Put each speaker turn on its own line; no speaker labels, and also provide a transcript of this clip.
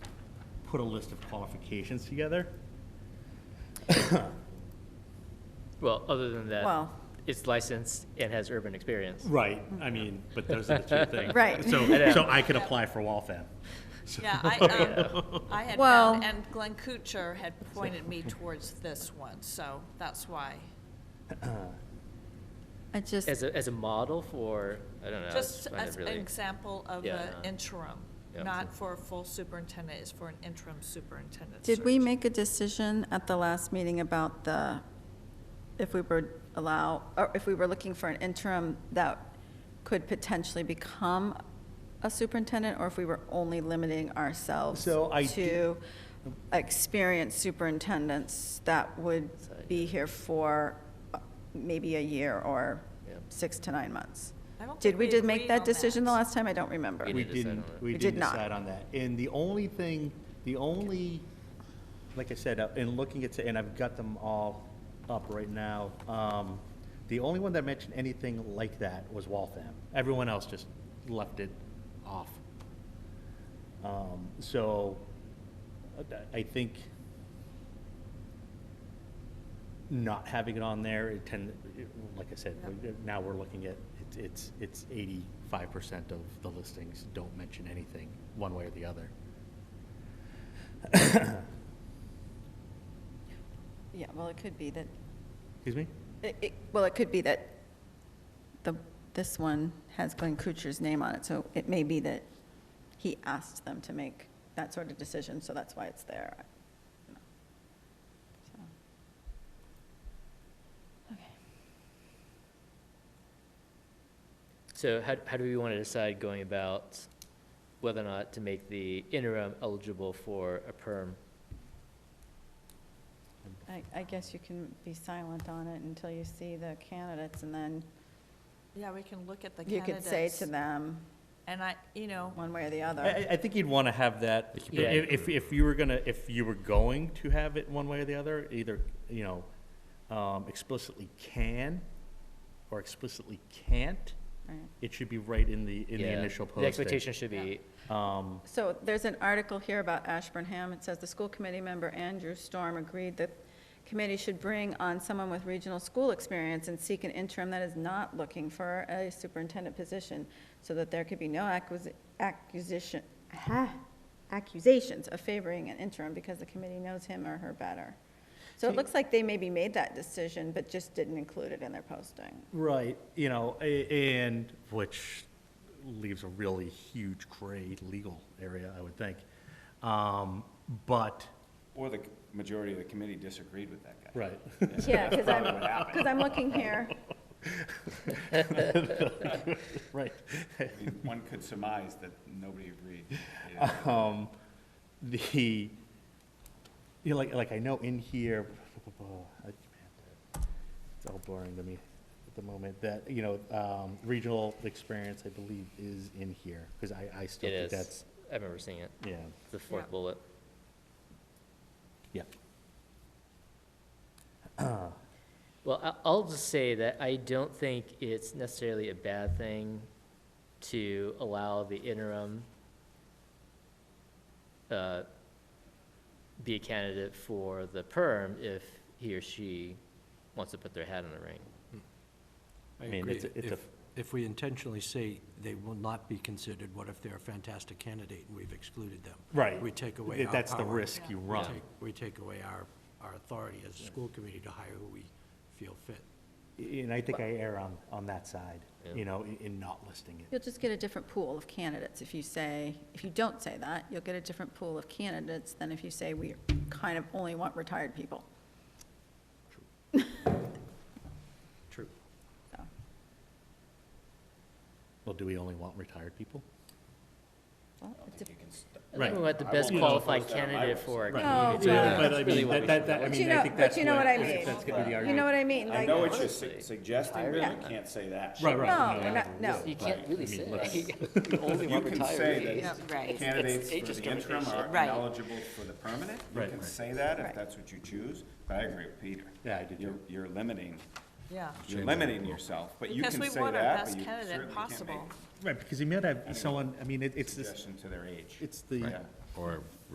put a list of qualifications together.
Well, other than that,
Well-
it's licensed and has urban experience.
Right, I mean, but those are the two things.
Right.
So,
Yeah.
so I could apply for WALFAM.
Yeah, I, um, I had
Well-
found, and Glenn Kuchar had pointed me towards this one, so that's why.
I just,
As a, as a model for, I don't know. I
Just
find it
as an
really-
example of
Yeah,
an
no.
interim,
Yeah.
not for a full superintendent, it's for an interim superintendent.
did we
search.
make a decision at the last meeting about the, if we were allow, or if we were looking for an interim that could potentially become a superintendent, or if we were only limiting ourselves
So I di-
to experienced superintendents that would be here for uh, maybe a year or
Yeah.
six to nine months?
I don't
Did
think
we
we
did make
agreed
that
on
decision the
that.
last time? I don't remember.
We
We
didn't decide
didn't,
on that.
we
We
didn't
did not.
decide on that. And the only thing, the only, like I said, uh, in looking at, and I've got them all up right now, um, the only one that mentioned anything like that was Waltham. Everyone else just left it off. Um, So uh, I think not having it on there, it tend, it- like I said, we- now we're looking at, it's- it's, it's eighty-five percent of the listings don't mention anything, one way or the other.
Yeah, well, it could be that
Excuse me?
It- it- Well, it could be that the, this one has Glenn Kuchar's name on it, so it may be that he asked them to make that sort of decision, so that's why it's there. I don't know. So. Okay.
So how, how do we want to decide going about whether or not to make the interim eligible for a perm?
I, I guess you can be silent on it until you see the candidates, and then
Yeah, we can look at the
you
candidates.
could say to them,
And I, you know,
one way or the
I,
other.
I- I think you'd want to have that,
keep it-
i- if, if you were gonna, if you were going to have it one way or the other, either, you know, um, explicitly can or explicitly can't,
Right.
it should be right in the, in the
Yeah.
initial
The
posting.
expectation should be,
Um,
So there's an article here about Ashburnham. It says the school committee member Andrew Storm agreed that committee should bring on someone with regional school experience and seek an interim that is not looking for a superintendent position so that there could be no acquisi- acquisition, ha, accusations of favoring an interim because the committee knows him or her better. So it looks like they maybe made that decision, but just didn't include it in their posting.
Right, you know, a- and, which leaves a really huge gray legal area, I would think. Um, But,
Or the majority of the committee disagreed with that guy.
right,
Yeah, because I'm,
Probably what happened.
because I'm looking here.
right.
I mean, One could surmise that nobody agreed. you know.
Um, The, you know, like, like I know in here, it's all blurring to me at the moment, that, you know, um, regional experience, I believe, is in here, because I, I still
it
think
is,
that's,
I remember seeing it,
yeah,
the fourth
Yeah.
bullet.
yeah.
Well, I- I'll just say that I don't think it's necessarily a bad thing to allow the interim uh, be a candidate for the perm if he or she wants to put their hat in the ring.
I
I mean,
agree.
it's a- it's a-
If, if we intentionally say they will not be considered, what if they're a fantastic candidate and we've excluded them?
Right.
We take away
Th-
our
That's the
power.
risk you
We
run.
take- We take away our, our authority as a school committee to hire who we feel fit.
And I think I err on, on that side,
Yeah.
you know, in, in not listing it.
You'll just get a different pool of candidates if you say, if you don't say that, you'll get a different pool of candidates than if you say, we kind of only want retired people.
True.
So,
Well, do we only want retired people?
well,
I don't
it's
think
a-
you can stop-
I think we
Right.
want the
I
best
won't
qualified
post that on my
candidate
website.
for a
Right.
No,
community.
But
Yeah.
I
That's really
mean,
what we
that, that, that- I
should do.
mean,
But you
I
know-
think
but
that's
you know what I
what,
mean.
that's gonna be the
You know
argument.
what I mean?
I
Like-
know what you're su-
Honestly.
suggesting, but you can't say that.
Right, right.
No, we're not, no.
You can't really say,
let's-
you only
You
want
can say
retirees.
Yeah, right.
that candidates
It's- it's
for
just
the interim are
Right.
eligible for the permanent. You
Right.
can say that
Right.
if that's what you choose, but I agree with Peter.
Yeah, I do too.
You're, you're limiting,
yeah.
you're limiting yourself, but you
Because
can
we
say
want our
that,
best
but you
candidate
certainly can't
possible.
make
Right, because you might have someone, I mean, it- it's this,
suggestion to their age.
it's the,
Yeah.
Or